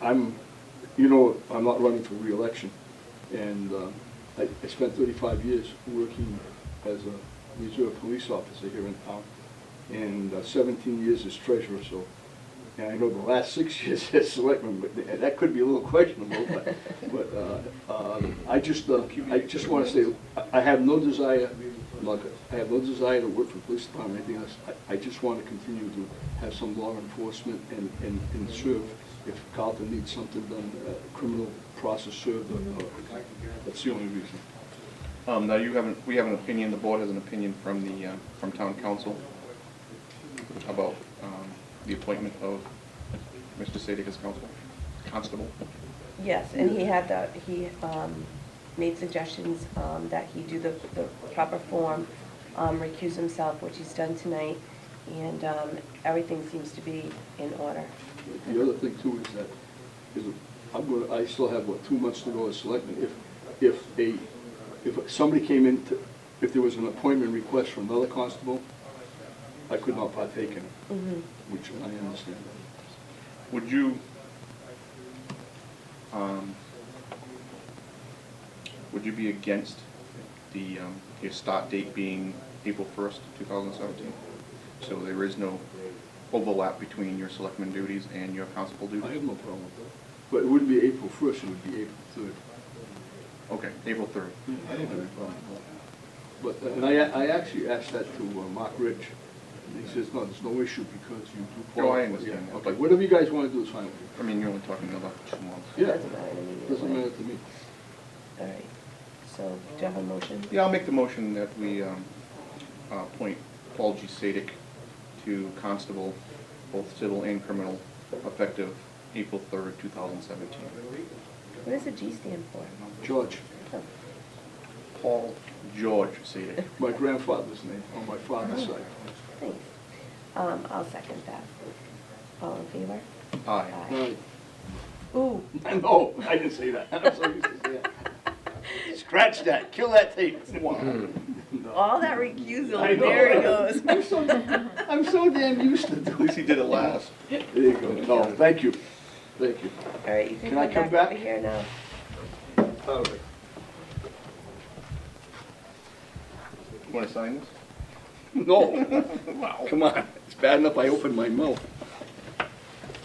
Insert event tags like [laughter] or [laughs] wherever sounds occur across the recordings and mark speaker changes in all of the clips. Speaker 1: I'm, you know, I'm not running for reelection, and uh, I I spent 35 years working as a reserve police officer here in town, and uh, 17 years as treasurer, so, and I know the last six [laughs] years as selectman, but th- that could be a little questionable, but, but uh, uh, I just, uh, I just want to say, I- I have no desire, look, I have no desire to work for the police department or anything else. I, I just want to continue to have some law enforcement and, and, and serve. If Carlton needs something done, uh, criminal process served, uh, uh, that's the only reason.
Speaker 2: Um, now you haven't, we have an opinion, the board has an opinion from the, uh, from town council about, um, the appointment of Mr. Sadik as council, constable.
Speaker 3: Yes, and he had the, he um, made suggestions um, that he do the the proper form, um, recuse himself, which he's done tonight, and um, everything seems to be in order.
Speaker 1: The other thing too is that, is I'm gonna, I still have, what, two months to go as selectman. If, if a, if somebody came in, to- if there was an appointment request from another constable, I could not partake in it,
Speaker 3: Mhm.
Speaker 1: which I understand.
Speaker 2: Would you, um, would you be against the, um, your start date being April first, two thousand seventeen? So there is no overlap between your selectman duties and your constable
Speaker 1: I
Speaker 2: duties?
Speaker 1: have no problem with that. But it wouldn't be April first, it would be April third.
Speaker 2: Okay, April third.
Speaker 1: I don't have any problem with that. But, and I, I actually asked that to uh, Mark Rich, and he says, no, there's no issue because you do.
Speaker 2: Oh, I
Speaker 1: qualify."
Speaker 2: understand
Speaker 1: Yeah,
Speaker 2: that.
Speaker 1: Okay, whatever you guys wanna do is fine with me.
Speaker 2: I mean, you're only talking about two months.
Speaker 1: Yeah.
Speaker 3: Doesn't matter to me either
Speaker 1: Doesn't
Speaker 3: way.
Speaker 1: matter to me.
Speaker 3: All right, so do you have a motion?
Speaker 2: Yeah, I'll make the motion that we um, uh, appoint Paul G. Sadik to constable, both civil and criminal, effective April 3rd, 2017.
Speaker 3: What does the G stand for?
Speaker 1: George,
Speaker 3: Oh,
Speaker 2: Paul George Sadik.
Speaker 1: my grandfather's name, on my father's side.
Speaker 3: Thanks. Um, I'll second that. All in favor?
Speaker 2: Aye.
Speaker 1: Right.
Speaker 3: Ooh,
Speaker 1: [laughs] No, I didn't say that. [laughs] I'm so used to saying that. Scratch that, kill that tape. No.
Speaker 3: all that recusal,
Speaker 1: I know.
Speaker 3: there
Speaker 1: [laughs]
Speaker 3: it goes.
Speaker 1: I'm so- [laughs] I'm so damn used to
Speaker 2: [laughs] At least
Speaker 1: doing
Speaker 2: he did it last.
Speaker 1: it. There you go. No, thank you, thank you.
Speaker 3: All right, you can
Speaker 1: Can I
Speaker 3: come
Speaker 1: come
Speaker 3: back
Speaker 1: back?
Speaker 3: over here now.
Speaker 1: All right.
Speaker 2: Want to sign this?
Speaker 1: No.
Speaker 2: [laughs]
Speaker 1: Come on, it's bad enough I opened my mouth.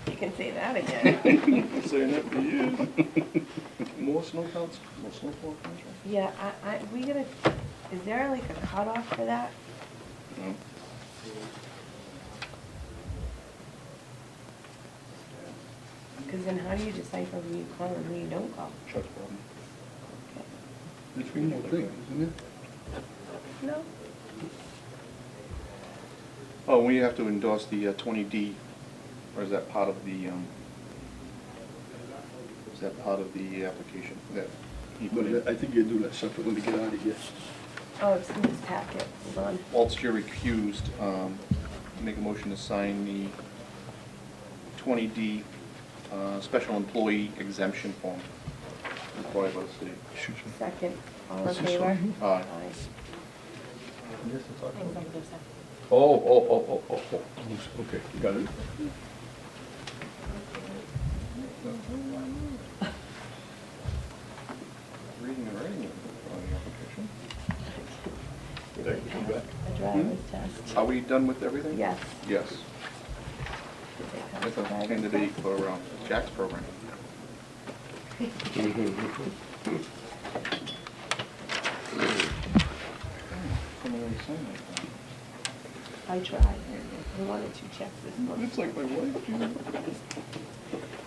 Speaker 3: You can say that again.
Speaker 2: [laughs] Saying that for you. More snow counts, more snowfall contract?
Speaker 3: Yeah, I, I, we gonna, is there like a cutoff for that?
Speaker 2: No.
Speaker 3: Because then how do you decipher who you call and who you don't call?
Speaker 2: Chuck's problem.
Speaker 1: It's a normal thing, isn't it?
Speaker 3: No.
Speaker 2: Oh, we have to endorse the uh, twenty D, or is that part of the, um, is that part of the application that he put
Speaker 1: But I
Speaker 2: in?
Speaker 1: think you do that separate when you get out of here.
Speaker 3: Oh, it's in this packet, hold on.
Speaker 2: Whilst you're recused, um, make a motion to sign the twenty D, uh, special employee exemption form required by the city.
Speaker 1: Excuse me.
Speaker 3: Second, all in
Speaker 1: This is
Speaker 3: favor?
Speaker 1: fine.
Speaker 2: Aye.
Speaker 3: [laughs]
Speaker 1: Oh, oh, oh, oh, oh, oh. Okay, got it.
Speaker 2: Reading and writing on the application.
Speaker 1: There, come back.
Speaker 3: A driver's test.
Speaker 2: Are we done with everything?
Speaker 3: Yes.
Speaker 2: Yes. That's a candidate for um, Jack's program.
Speaker 3: [laughs] I tried, I wanted to check this one.
Speaker 2: It's like my wife. you know.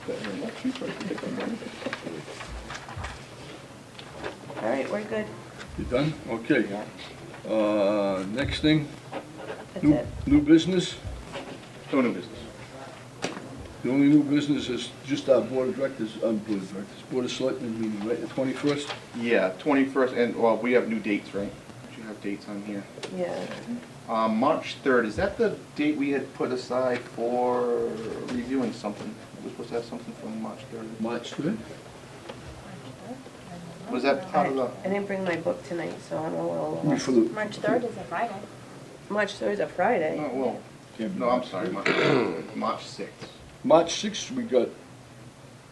Speaker 2: That her luck, she tried to take my money.
Speaker 3: All right, we're good,
Speaker 1: You done? Okay. Uh, next thing,
Speaker 3: that's
Speaker 1: new,
Speaker 3: it.
Speaker 1: new business.
Speaker 2: No new business.
Speaker 1: The only new business is just our board of directors, um, board of directors, board of selectmen meeting, right, the twenty-first?
Speaker 2: Yeah, twenty-first, and, well, we have new dates, right? Do you have dates on here?
Speaker 3: Yeah,
Speaker 2: Uh, March third, is that the date we had put aside for reviewing something? We're supposed to have something from March third.
Speaker 1: March third?
Speaker 2: Was that part of the?
Speaker 3: I didn't bring my book tonight, so I'm a little
Speaker 1: For
Speaker 3: lost.
Speaker 1: the-
Speaker 4: March third is a Friday.
Speaker 3: March third is a Friday.
Speaker 2: Oh, No, well, no, I'm sorry, March, March sixth.
Speaker 1: March sixth, we got